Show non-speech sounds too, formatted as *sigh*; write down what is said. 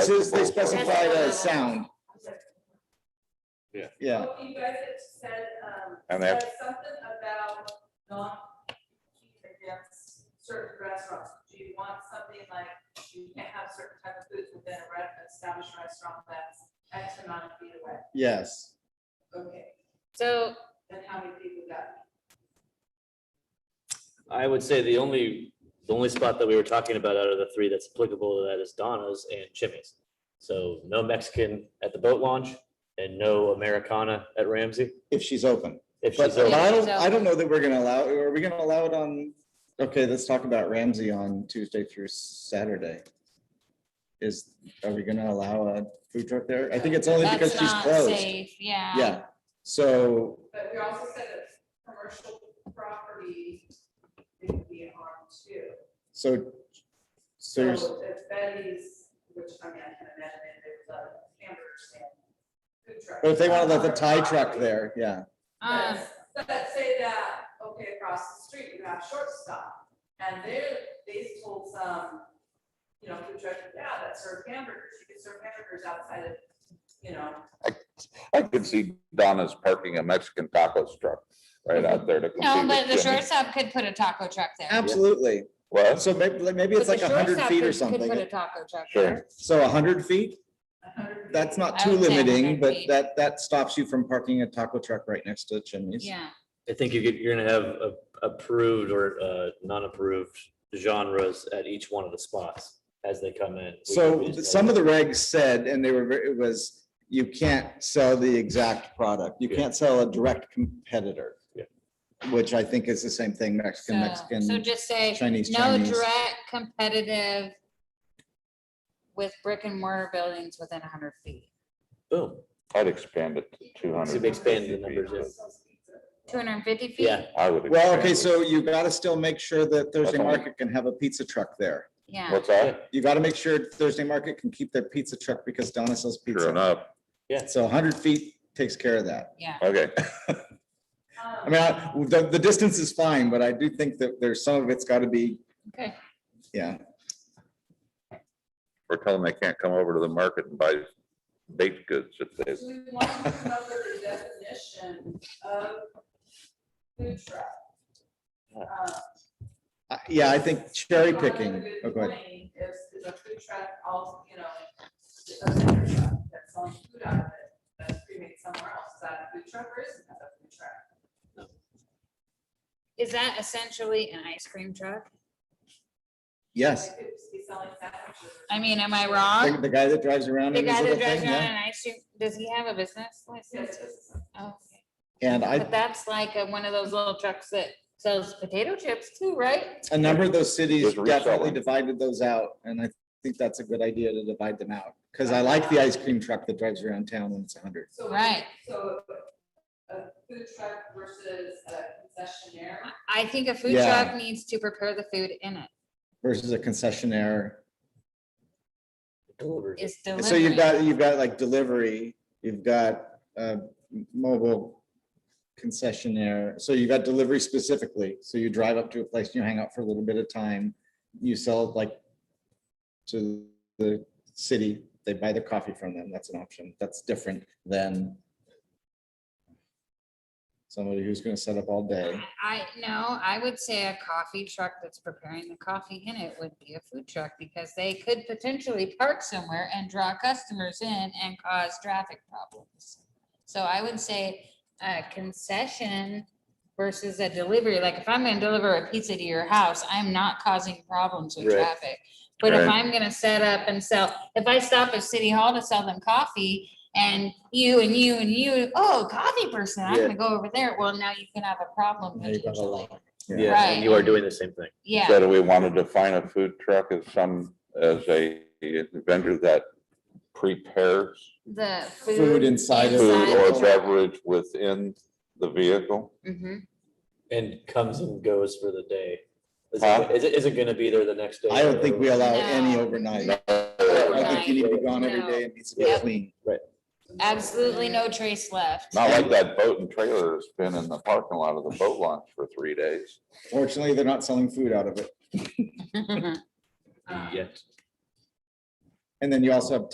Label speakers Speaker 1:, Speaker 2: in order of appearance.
Speaker 1: Since they specified a sound.
Speaker 2: Yeah.
Speaker 1: Yeah,
Speaker 3: Oh, You guys had said, um,
Speaker 4: And they have-
Speaker 3: said something about not competing against certain restaurants. Do you want something like, you can't have certain type of foods within a re- established restaurant that's X amount of feet away?
Speaker 1: yes.
Speaker 3: Okay,
Speaker 5: So
Speaker 3: then how many people got?
Speaker 2: I would say the only, the only spot that we were talking about out of the three that's applicable to that is Donna's and Chimmy's. So no Mexican at the boat launch and no Americana at Ramsey.
Speaker 1: If she's open.
Speaker 2: If
Speaker 1: But uh,
Speaker 2: she's
Speaker 1: but
Speaker 2: open,
Speaker 1: I don't, I don't know that we're gonna allow, are we gonna allow it on, okay, let's talk about Ramsey on Tuesday through Saturday. Is, are we gonna allow a food truck there? I think it's only because
Speaker 5: that's
Speaker 1: she's
Speaker 5: not
Speaker 1: closed.
Speaker 5: safe, yeah.
Speaker 1: Yeah, so,
Speaker 3: But we also said that commercial property could be harmed too.
Speaker 1: so, so, you're s-
Speaker 3: So if Betty's, which I mean, I can imagine if there's a hamburger stand. food truck.
Speaker 1: but if they wanna let the
Speaker 3: on
Speaker 1: Thai
Speaker 3: her
Speaker 1: truck
Speaker 3: property,
Speaker 1: there, yeah,
Speaker 5: Um,
Speaker 3: Let's let's say that, okay, across the street, you have short stop, and they're, they told some, you know, food truck, yeah, that serve hamburgers, you can serve hamburgers outside of, you know.
Speaker 4: I could see Donna's parking a Mexican tacos truck right out there to
Speaker 5: no,
Speaker 4: compete
Speaker 5: but the
Speaker 4: with
Speaker 5: short
Speaker 4: Jimmy's.
Speaker 5: stop could put a taco truck there.
Speaker 1: absolutely.
Speaker 4: What?
Speaker 1: So maybe, maybe it's
Speaker 5: But
Speaker 1: like
Speaker 5: the
Speaker 1: a hundred
Speaker 5: shortstop
Speaker 1: feet
Speaker 5: could-
Speaker 1: or
Speaker 5: could Put a
Speaker 1: something.
Speaker 5: taco truck
Speaker 4: Sure.
Speaker 5: there.
Speaker 1: So a hundred feet?
Speaker 3: a hundred
Speaker 1: That's
Speaker 3: feet.
Speaker 1: not
Speaker 5: I
Speaker 1: too
Speaker 5: would say
Speaker 1: limiting,
Speaker 5: 100
Speaker 1: but
Speaker 5: feet.
Speaker 1: that, that stops you from parking a taco truck right next to Chimney's.
Speaker 5: Yeah,
Speaker 2: I think you get, you're gonna have a- approved or uh, non-approved genres at each one of the spots as they come in.
Speaker 1: So some of the regs said, and they were, ver- it was, you can't sell the exact product. You
Speaker 2: Yeah.
Speaker 1: can't sell a direct competitor.
Speaker 2: Yeah.
Speaker 1: Which I think is the same thing, Mexican,
Speaker 5: so, so
Speaker 1: Mexican,
Speaker 5: just say,
Speaker 1: Chinese,
Speaker 5: no
Speaker 1: Chinese.
Speaker 5: direct competitive with brick and mortar buildings within hundred feet.
Speaker 2: Boom.
Speaker 4: I'd expand it to two
Speaker 2: So
Speaker 4: hundred.
Speaker 2: we expand the numbers. yeah.
Speaker 5: Two hundred and fifty feet?
Speaker 2: Yeah.
Speaker 4: I would.
Speaker 1: Well,
Speaker 4: expand
Speaker 1: okay,
Speaker 4: it.
Speaker 1: so you gotta still make sure that Thursday
Speaker 4: all.
Speaker 1: Market can have a pizza truck there.
Speaker 5: Yeah,
Speaker 4: What's that?
Speaker 1: You gotta make sure Thursday Market can keep their pizza truck because Donna sells
Speaker 4: Sure
Speaker 1: pizza.
Speaker 4: enough.
Speaker 1: So hundred feet takes care of that.
Speaker 5: yeah.
Speaker 4: Okay. *laughs*
Speaker 3: Um,
Speaker 1: I mean, I- the, the distance is fine, but I do think that there's some of it's gotta be,
Speaker 5: Okay.
Speaker 1: yeah,
Speaker 4: We're telling them they can't come over to the market and buy baked goods if they,
Speaker 3: Do we want to come up with a definition of food truck? Uh,
Speaker 1: I- yeah, I think cherry picking.
Speaker 3: Another
Speaker 1: Oh,
Speaker 3: good
Speaker 1: go ahead.
Speaker 3: point Is, is a food truck also, you know, a vendor truck that's selling food out of it, that's pre-made somewhere else, is that a food truck or isn't that a food truck?
Speaker 5: Is that essentially an ice cream truck?
Speaker 1: Yes.
Speaker 3: They could just be selling sandwiches.
Speaker 5: I mean, am I
Speaker 1: The,
Speaker 5: wrong?
Speaker 1: the guy that drives around
Speaker 5: The
Speaker 1: in his
Speaker 5: guy that
Speaker 1: little
Speaker 5: drives
Speaker 1: thing,
Speaker 5: around
Speaker 1: yeah.
Speaker 5: an ice cream, does he have a business
Speaker 3: Yes,
Speaker 5: license?
Speaker 3: it's-
Speaker 5: Oh,
Speaker 1: And I,
Speaker 5: But that's like a- one of those little trucks that sells potato chips too, right?
Speaker 1: a number of those cities
Speaker 4: There's
Speaker 1: definitely
Speaker 4: reselling.
Speaker 1: divided those out, and I think that's a good idea to divide them out. Cause I like the ice cream truck that drives around town when it's hundred.
Speaker 3: so-
Speaker 5: Right.
Speaker 3: So a food truck versus a concessionaire.
Speaker 5: I think a food
Speaker 1: Yeah.
Speaker 5: truck needs to prepare the food in it,
Speaker 1: Versus a concessionaire.
Speaker 2: Delivers.
Speaker 5: is
Speaker 1: And So you've
Speaker 5: delivering.
Speaker 1: got, you've got like delivery, you've got, uh, m- mobile concessionaire. So you've got delivery specifically. So you drive up to a place, and you hang out for a little bit of time, you sell like to the city, they buy their coffee from them. That's an option. That's different than somebody who's gonna set up all day.
Speaker 5: I, no, I would say a coffee truck that's preparing the coffee in it would be a food truck because they could potentially park somewhere and draw customers in and cause traffic problems. So I would say a concession versus a delivery, like if I'm gonna deliver a pizza to your house, I'm not causing problems with
Speaker 2: Right.
Speaker 5: traffic. But if
Speaker 4: Right.
Speaker 5: I'm gonna set up and sell, if I stop at City Hall to sell them coffee and you and you and you, oh, coffee person, I'm
Speaker 2: Yeah.
Speaker 5: gonna go over there. Well, now you can have a problem
Speaker 1: Now you've got a
Speaker 5: potentially.
Speaker 1: lot.
Speaker 2: Yeah, and you are doing the same thing.
Speaker 5: Yeah,
Speaker 4: so do we want to define a food truck as some, as a vendor that prepares
Speaker 5: the
Speaker 1: Food
Speaker 5: food.
Speaker 1: inside of.
Speaker 4: food
Speaker 5: Inside.
Speaker 4: or beverage within the vehicle?
Speaker 5: Mhm.
Speaker 2: And comes and goes for the day. Is
Speaker 4: Huh?
Speaker 2: it, is it, is it gonna be there the next day?
Speaker 1: I don't think we allow any
Speaker 5: No.
Speaker 1: overnight. I think you
Speaker 5: Overnight.
Speaker 1: need to be gone every
Speaker 5: No.
Speaker 1: day. It needs to be
Speaker 5: Yep.
Speaker 1: clean.
Speaker 5: Absolutely no trace left. *laughs*
Speaker 4: Not like that boat and trailer that's been in the parking lot of the boat launch for three days.
Speaker 1: Fortunately, they're not selling food out of it.
Speaker 2: Yes.
Speaker 1: And then you also have